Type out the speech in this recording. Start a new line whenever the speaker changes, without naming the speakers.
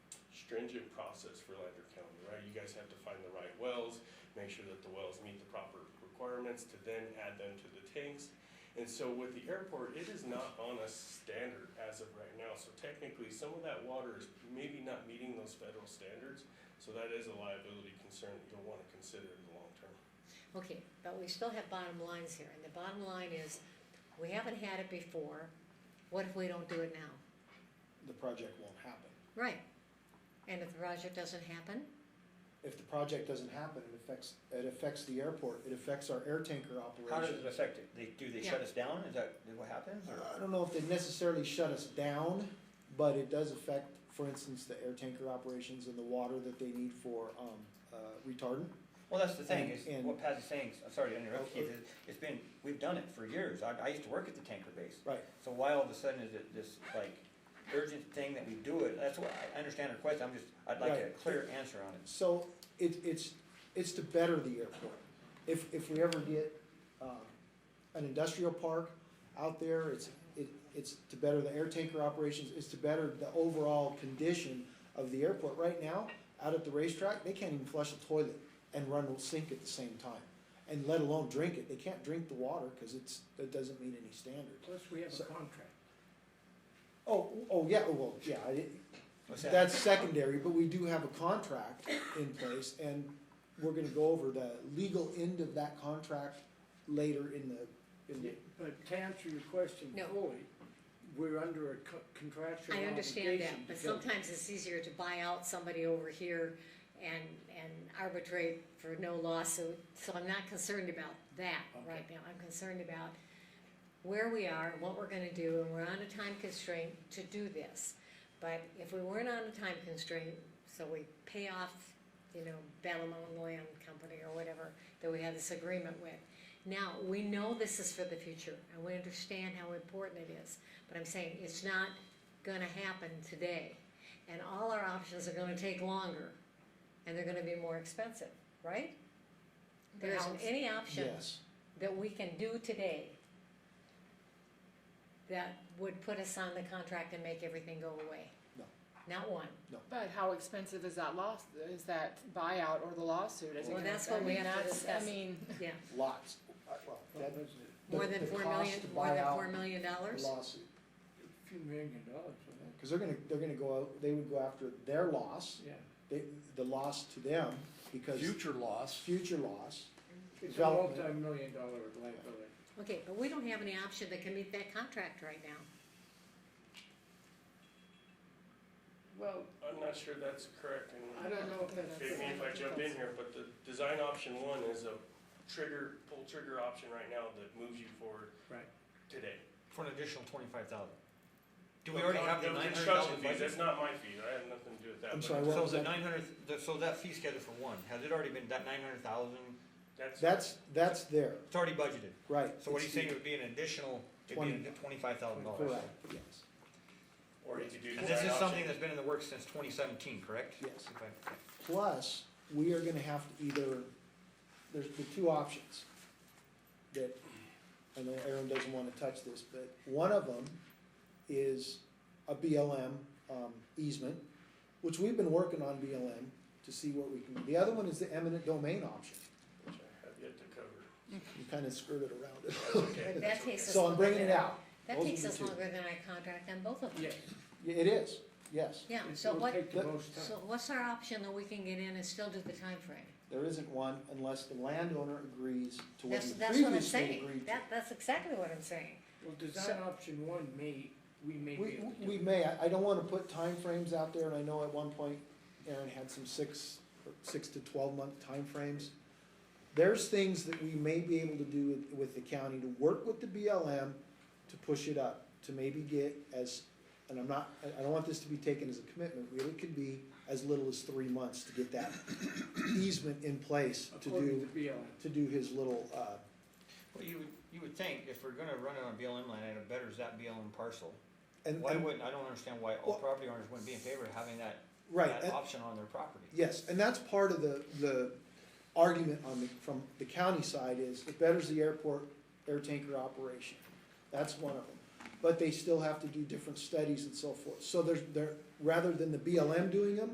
stringent process for Lander County, right? You guys have to find the right wells, make sure that the wells meet the proper requirements to then add them to the tanks. And so with the airport, it is not on a standard as of right now. So technically, some of that water is maybe not meeting those federal standards. So that is a liability concern that you'll want to consider in the long term.
Okay, but we still have bottom lines here, and the bottom line is, we haven't had it before, what if we don't do it now?
the project won't happen.
Right, and if the project doesn't happen,
If the project doesn't happen, it affects, it affects the airport, it affects our air tanker operations.
How does it affect it? They, do they shut us down? Is that what happens? or-
I don't know if they necessarily shut us down, but it does affect, for instance, the air tanker operations and the water that they need for, um, uh, retardant.
Well, that's the thing,
And-
is
and-
what Paz is saying, I'm sorry to interrupt you,
Okay.
is it's been, we've done it for years. I, I used to work at the tanker base.
Right.
So why all of a sudden is it this, like, urgent thing that we do it? That's what, I understand her question, I'm just, I'd like a
Right.
clear answer on it.
So it, it's, it's to better the airport. If, if we ever get, um, an industrial park out there, it's, it, it's to better the air tanker operations, it's to better the overall condition of the airport. Right now, out at the racetrack, they can't even flush a toilet and run a sink at the same time, and let alone drink it. They can't drink the water, cause it's, that doesn't meet any standards.
Plus, we have a
So-
contract.
Oh, oh, yeah, well, yeah, I didn't-
What's that?
that's secondary, but we do have a contract in place, and we're gonna go over the legal end of that contract later in the, in the,
But to answer your question
No.
fully, we're under a co- contractual
I
obligation.
understand that, but
to-
sometimes it's easier to buy out somebody over here and, and arbitrate for no lawsuit, so I'm not concerned about that right now, I'm concerned about where we are, what we're gonna do, and we're on a time constraint to do this. But if we weren't on a time constraint, so we pay off, you know, Battle Mountain Land Company or whatever that we had this agreement with. Now, we know this is for the future, and we understand how important it is, but I'm saying it's not gonna happen today. And all our options are gonna take longer, and they're gonna be more expensive, right? There isn't any option
yes.
that we can do today that would put us on the contract and make everything go away?
No.
Not one.
But how expensive is that loss, is that buyout or the lawsuit? Is it
Well,
gonna-
that's what we
I mean,
have to
that's-
discuss.
I mean,
Yeah,
Lots. Uh, well,
That
that-
was
the-
more than
the
four
cost
million,
to
more
buy
than
out
four million
the
dollars?
Lawsuit,
a few million dollars, wasn't
because they're gonna, they're gonna go out, they would go after their loss,
it? yeah.
they, the loss to them, because
Future loss,
future loss,
It's a
Development.
multi-million dollar liability.
Okay, but we don't have any option that can meet that contract right now.
Well,
I'm not sure that's correct. and-
I don't know if that's.
Forgive me if I jump in here, but the design option one is a trigger, pull trigger option right now that moves you forward
Right.
today.
For an additional twenty-five thousand. Do
But
we already
con-
have the
no,
nine hundred
construction
thousand
fees, That's
budget?
not my fee, I have nothing to do with that.
I'm
but
sorry, what-
So the nine hundred, so that fee schedule for one, has it already been, that nine hundred thousand,
That's,
that's, that's there,
it's already budgeted?
right.
So what are you
It's
saying, it would be an additional, it'd be
Twenty.
twenty-five thousand dollars?
Correct, yes,
or you could do
And this
design
is something
option.
that's been in the works since 2017, correct?
Yes.
If I-
plus, we are gonna have to either, there's the two options that, I know Aaron doesn't wanna touch this, but one of them is a BLM um, easement, which we've been working on BLM to see what we can, the other one is the eminent domain option.
Which I have yet to cover.
You kinda skirted around it.
Okay.
But that takes us.
So I'm bringing it
longer than-
out.
That
Those
takes
are the
us
two.
longer than our contract on both of them.
Yes.
Yeah, It is, yes.
Yeah,
It
so
will
what,
take the most time.
so what's our option that we can get in and still do the time frame?
There isn't one unless the landowner agrees to what
That's,
we
that's what I'm
previously
saying,
agreed to.
that, that's exactly what I'm saying.
Well,
So-
design option one may, we may be
We,
able to do.
we may, I I don't wanna put timeframes out there, and I know at one point Aaron had some six, or six to twelve month timeframes. There's things that we may be able to do with, with the county to work with the BLM to push it up, to maybe get as, and I'm not, I, I don't want this to be taken as a commitment, really could be as little as three months to get that easement in place to
According
do,
to BLM.
to do his little, uh,
Well, you would, you would think if we're gonna run it on a BLM land, and it betters that BLM parcel,
and,
why
and-
wouldn't, I don't understand why all
Well-
property owners wouldn't be in favor of having that,
right.
that
and-
option on their property.
Yes, and that's part of the, the argument on the, from the county side is it betters the airport air tanker operation. That's one of them. But they still have to do different studies and so forth. So there's, there, rather than the BLM doing them,